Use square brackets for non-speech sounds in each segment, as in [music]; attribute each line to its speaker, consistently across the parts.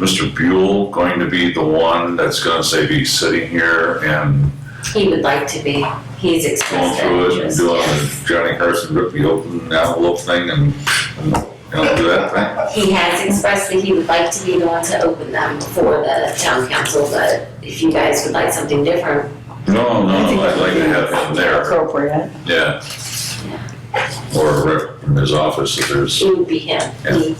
Speaker 1: Mr. Buell going to be the one that's gonna say be sitting here and
Speaker 2: He would like to be, he's
Speaker 1: going
Speaker 2: expressed that
Speaker 1: through it and
Speaker 2: interest,
Speaker 1: doing
Speaker 2: yes.
Speaker 1: the Johnny Carson rip the open envelope thing and, and, you know, do that thing?
Speaker 2: He has expressed that he would like to be the one to open them for the town council, but if you guys would like something different,
Speaker 1: No, no, I'd like to have him there,
Speaker 3: Appropriate.
Speaker 1: yeah. Or rep from his office if there's,
Speaker 2: it would be him. He-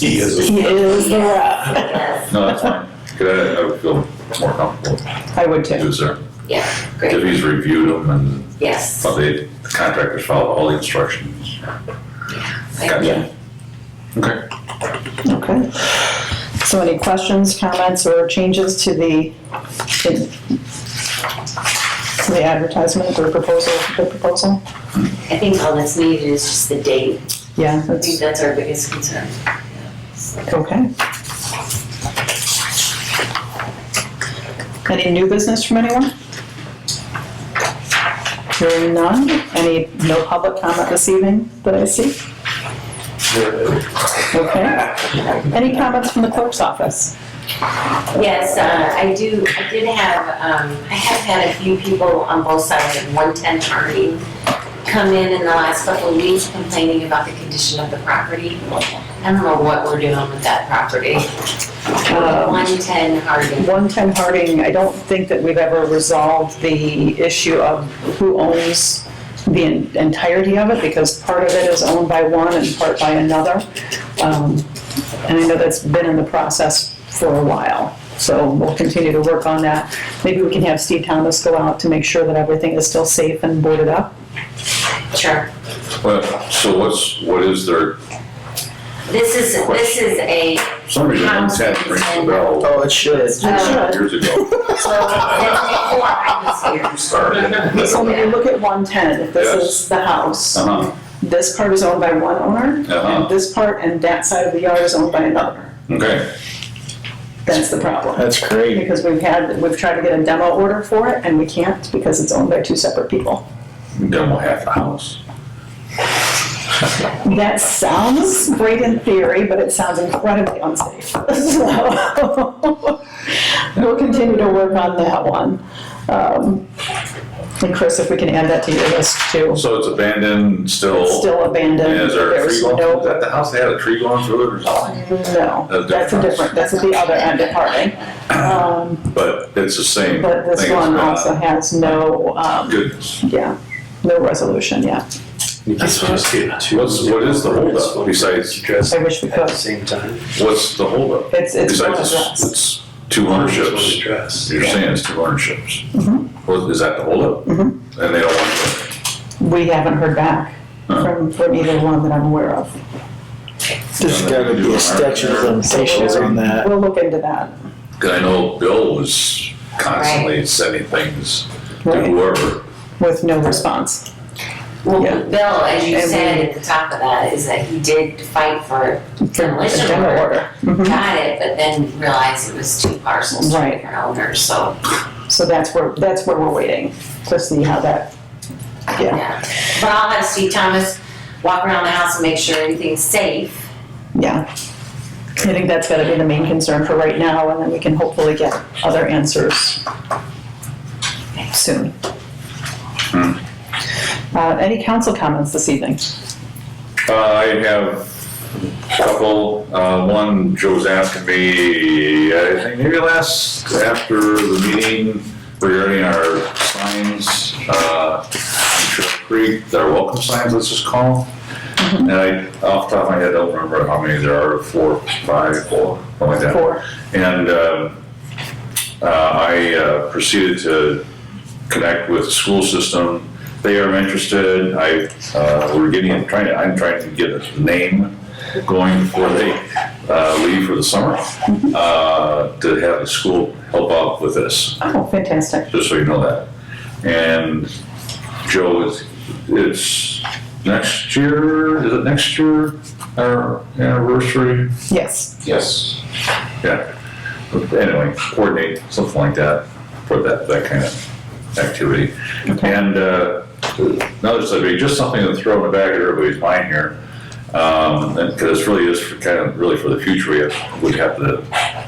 Speaker 4: He is.
Speaker 3: He is the rep.
Speaker 2: Yes,
Speaker 1: no, that's fine. Good, I would feel more comfortable if
Speaker 3: I would
Speaker 1: he
Speaker 3: too.
Speaker 1: was there. If
Speaker 2: great,
Speaker 1: he's reviewed them and
Speaker 2: yes.
Speaker 1: Well, they, the contractors followed all the instructions. Gotcha. Okay.
Speaker 3: Okay. So any questions, comments, or changes to the, to the advertisement or proposal, the proposal?
Speaker 2: I think all that's needed is just the date.
Speaker 3: Yeah,
Speaker 2: I think
Speaker 3: that's,
Speaker 2: that's our biggest concern. Yeah, so.
Speaker 3: okay. Any new business from anyone? Hearing none, any, no public comment this evening that I see? Okay. Any comments from the clerk's office?
Speaker 2: Yes, uh, I do, I did have, um, I have had a few people on both sides of 110 Harding come in in the last couple of weeks complaining about the condition of the property. I don't know what we're doing with that property.
Speaker 3: Um,
Speaker 2: 110 Harding.
Speaker 3: 110 Harding, I don't think that we've ever resolved the issue of who owns the en- entirety of it, because part of it is owned by one and part by another. Um, And I know that's been in the process for a while, so we'll continue to work on that. Maybe we can have Steve Thomas go out to make sure that everything is still safe and boarded up.
Speaker 2: Sure.
Speaker 1: Well, so what's, what is their,
Speaker 2: This is, this is a,
Speaker 1: somebody didn't have rings the bell
Speaker 4: Oh, it should.
Speaker 2: uh,
Speaker 1: years ago.
Speaker 2: so, before I was here.
Speaker 1: Sorry.
Speaker 3: So when you look at 110, if this
Speaker 1: Yes.
Speaker 3: is the house,
Speaker 1: Uh-huh,
Speaker 3: this part is owned by one owner,
Speaker 1: Uh-huh.
Speaker 3: and this part and that side of the yard is owned by another.
Speaker 1: okay.
Speaker 3: That's the problem.
Speaker 4: That's great.
Speaker 3: Because we've had, we've tried to get a demo order for it and we can't because it's owned by two separate people.
Speaker 1: Then we'll have the house.
Speaker 3: That sounds great in theory, but it sounds incredibly unsafe. [laughs] So We'll continue to work on that one. Um, And Chris, if we can add that to your list too.
Speaker 1: So it's abandoned, still,
Speaker 3: It's Still abandoned.
Speaker 1: and is there a tree
Speaker 3: There's
Speaker 1: going
Speaker 3: no-
Speaker 1: through that? The house, they had a tree going through it or something?
Speaker 3: No,
Speaker 1: That's
Speaker 3: that's a different,
Speaker 1: different.
Speaker 3: that's at the other end of Harding. Um,
Speaker 1: But it's the same.
Speaker 3: But this
Speaker 1: thing, it's
Speaker 3: one
Speaker 1: been-
Speaker 3: also has no, um,
Speaker 1: Goodness.
Speaker 3: yeah, no resolution yet.
Speaker 5: That's what I was getting to.
Speaker 1: What's, what is the holdup besides,
Speaker 5: Address
Speaker 3: I wish we
Speaker 5: at the
Speaker 3: could.
Speaker 5: same time.
Speaker 1: what's the holdup?
Speaker 3: It's, it's one
Speaker 1: Besides,
Speaker 3: address.
Speaker 1: it's- it's two ownerships.
Speaker 5: Address.
Speaker 1: You're saying it's two ownerships.
Speaker 3: Mhm.
Speaker 1: Well, is that the holdup?
Speaker 3: Mhm.
Speaker 1: And they don't want
Speaker 3: We haven't heard back from, from either one that I'm aware of.
Speaker 4: There's gotta be a statute of limitations on that.
Speaker 3: We'll look into that.
Speaker 1: to. Cause I know Bill was constantly sending things to
Speaker 3: Right,
Speaker 1: whoever.
Speaker 3: with no response.
Speaker 2: Well,
Speaker 3: Yeah.
Speaker 2: Bill, as you
Speaker 3: And we-
Speaker 2: said at the top of that, is that he did fight for demolition
Speaker 3: General
Speaker 2: order.
Speaker 3: order. Mhm.
Speaker 2: got it, but then realized it was two parcels, two
Speaker 3: Right.
Speaker 2: different owners, so,
Speaker 3: So that's where, that's where we're waiting to see how that, Yeah.
Speaker 2: yeah. But I'll have Steve Thomas walk around the house and make sure everything's safe.
Speaker 3: yeah. I think that's gotta be the main concern for right now, and then we can hopefully get other answers soon.
Speaker 1: Hmm.
Speaker 3: Uh, any council comments this evening?
Speaker 1: Uh, I have a couple, uh, one, Joe was asking me, uh, I think maybe last, after the meeting regarding our signs, uh, on Trail Creek, our welcome signs, let's just call them. And I, off the top of my head, I don't remember how many there are, four, five, four, something like that.
Speaker 3: For,
Speaker 1: And um, uh, I uh, proceeded to connect with the school system. They are interested. I, uh, we're getting, I'm trying to, I'm trying to get a name going before they uh, leave for the summer uh, to have the school help out with this
Speaker 3: oh, fantastic.
Speaker 1: just so you know that. And Joe, it's, it's next year, is it next year, our anniversary?
Speaker 3: Yes,
Speaker 1: Yes. Yeah, But anyway, coordinate, something like that, for that, that kind of activity.
Speaker 3: okay,
Speaker 1: And uh, another subject, just something to throw in the back of everybody's mind here. Um, and, cause this really is for kind of, really for the future, we have, would have to